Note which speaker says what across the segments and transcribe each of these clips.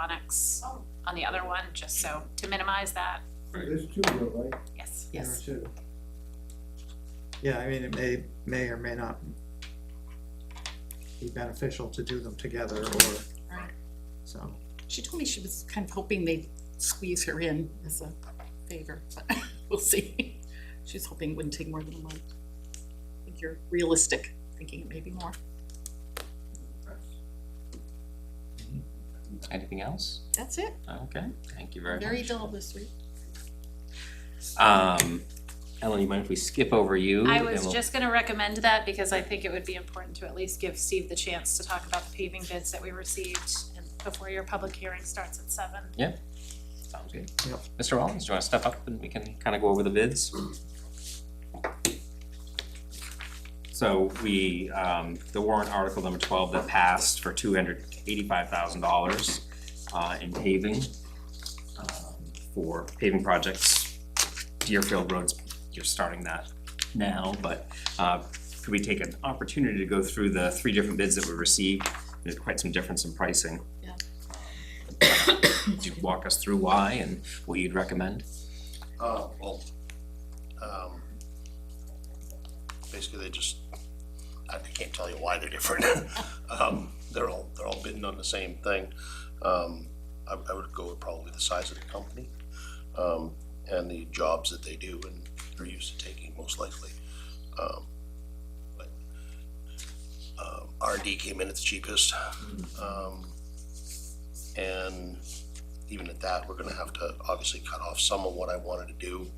Speaker 1: electronics on the other one, just so, to minimize that,
Speaker 2: There's two though, right?
Speaker 1: yes.
Speaker 3: Yes,
Speaker 2: There are two.
Speaker 4: Yeah, I mean, it may, may or may not be beneficial to do them together or,
Speaker 3: Right.
Speaker 4: so.
Speaker 3: she told me she was kind of hoping they'd squeeze her in as a favor, but we'll see. She's hoping it wouldn't take more than a month. I think you're realistic, thinking it may be more.
Speaker 5: Anything else?
Speaker 3: That's it,
Speaker 5: Okay, thank you very much.
Speaker 3: very dull this week.
Speaker 5: Um, Ellen, you mind if we skip over you?
Speaker 1: I
Speaker 5: and
Speaker 1: was
Speaker 5: we'll-
Speaker 1: just gonna recommend that because I think it would be important to at least give Steve the chance to talk about the paving bids that we received and before your public hearing starts at seven.
Speaker 5: Sounds good.
Speaker 4: Yep.
Speaker 5: Mr. Rollins, do you wanna step up and we can kinda go over the bids? So we, um, the warrant article number twelve that passed for two hundred eighty-five thousand dollars, uh, in paving, um, for paving projects, Deerfield Roads, you're starting that now, but, uh, could we take an opportunity to go through the three different bids that we received? There's quite some difference in pricing.
Speaker 3: Yeah.
Speaker 5: Could you walk us through why and what you'd recommend?
Speaker 6: Uh, well, um, basically they just, I can't tell you why they're different. Um, they're all, they're all bidding on the same thing. Um, I, I would go with probably the size of the company, um, and the jobs that they do and are used to taking most likely. Um, but, um, R and D came in at the cheapest, um, and even at that, we're gonna have to obviously cut off some of what I wanted to do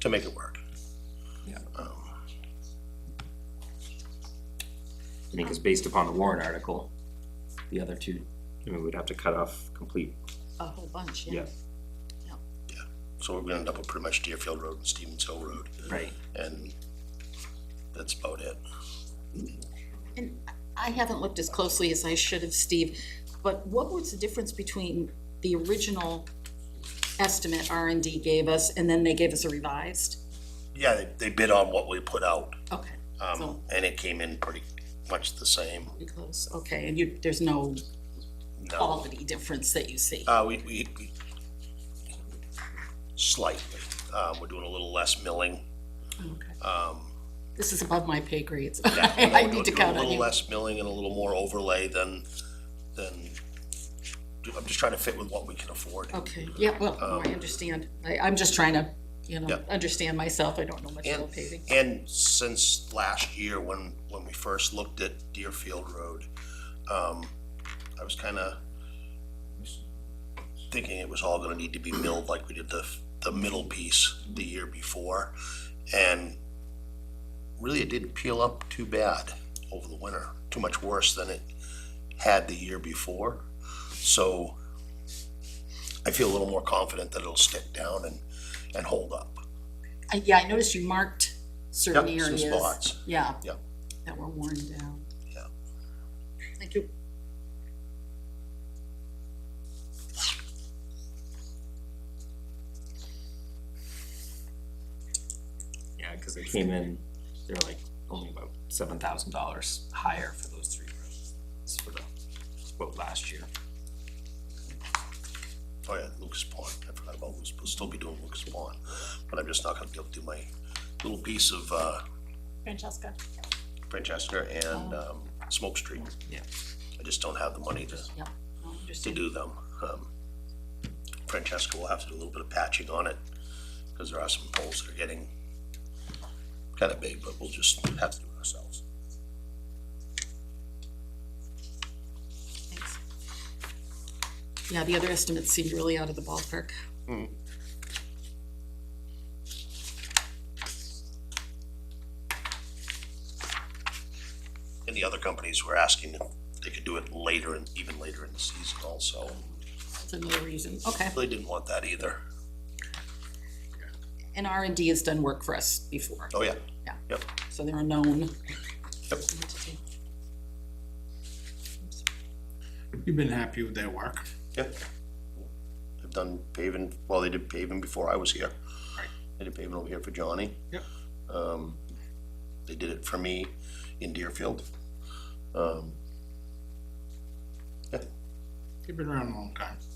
Speaker 6: to make it work.
Speaker 5: Yeah.
Speaker 6: Um,
Speaker 5: I think it's based upon the warrant article. The other two, I mean, we'd have to cut off complete.
Speaker 3: A whole bunch, yeah.
Speaker 6: So we're gonna end up with pretty much Deerfield Road and Stevens Hill Road,
Speaker 5: Right.
Speaker 6: and that's about it.
Speaker 3: And I haven't looked as closely as I should have, Steve, but what was the difference between the original estimate R and D gave us, and then they gave us a revised?
Speaker 6: Yeah, they, they bid on what we put out,
Speaker 3: Okay,
Speaker 6: um,
Speaker 3: So-
Speaker 6: and it came in pretty much the same.
Speaker 3: pretty close, okay, and you, there's no
Speaker 6: No,
Speaker 3: quality difference that you see?
Speaker 6: uh, we, we, we- slightly, uh, we're doing a little less milling,
Speaker 3: Okay.
Speaker 6: um,
Speaker 3: This is above my pay grades.
Speaker 6: Yeah,
Speaker 3: I
Speaker 6: we'll
Speaker 3: need
Speaker 6: do
Speaker 3: to count
Speaker 6: A
Speaker 3: on
Speaker 6: little
Speaker 3: you.
Speaker 6: less milling and a little more overlay than, than, I'm just trying to fit with what we can afford.
Speaker 3: Okay, yeah, well, no, I understand. I, I'm just trying to, you know,
Speaker 6: Um, Yeah.
Speaker 3: understand myself. I don't know much
Speaker 6: And,
Speaker 3: about paving.
Speaker 6: and since last year, when, when we first looked at Deerfield Road, um, I was kinda thinking it was all gonna need to be milled like we did the, the middle piece the year before. And really, it didn't peel up too bad over the winter, too much worse than it had the year before. So I feel a little more confident that it'll stick down and, and hold up.
Speaker 3: I- Yeah, I noticed you marked certain
Speaker 6: Yep, some
Speaker 3: areas.
Speaker 6: spots.
Speaker 3: Yeah.
Speaker 6: Yep.
Speaker 3: That were worn down.
Speaker 6: Yeah.
Speaker 3: Thank you.
Speaker 5: Yeah, cause they came in, they're like only about seven thousand dollars higher for those three roads. It's for the, quote last year.
Speaker 6: Oh yeah, Lucas Pond, I forgot about Lucas, we'll still be doing Lucas Pond, but I'm just not gonna be able to do my little piece of, uh,
Speaker 1: Francesca?
Speaker 6: Francesca and, um, Smoke Street.
Speaker 5: Yeah.
Speaker 6: I just don't have the money to,
Speaker 3: Yeah. No, I
Speaker 6: to
Speaker 3: understand.
Speaker 6: do them. Um, Francesca will have to do a little bit of patching on it, cause there are some poles that are getting kinda big, but we'll just have to do it ourselves.
Speaker 3: Thanks. Yeah, the other estimates seemed really out of the ballpark.
Speaker 6: And the other companies were asking if they could do it later and even later in the season also.
Speaker 3: That's another reason. Okay.
Speaker 6: They didn't want that either.
Speaker 3: And R and D has done work for us before,
Speaker 6: Oh, yeah.
Speaker 3: so they're a known
Speaker 6: Yep.
Speaker 3: entity.
Speaker 2: You've been happy with their work.
Speaker 6: Yep. They've done paving, well, they did paving before I was here.
Speaker 2: Right.
Speaker 6: They did paving over here for Johnny.
Speaker 2: Yep.
Speaker 6: Um, they did it for me in Deerfield. Um, yeah,
Speaker 2: You've been around a long time.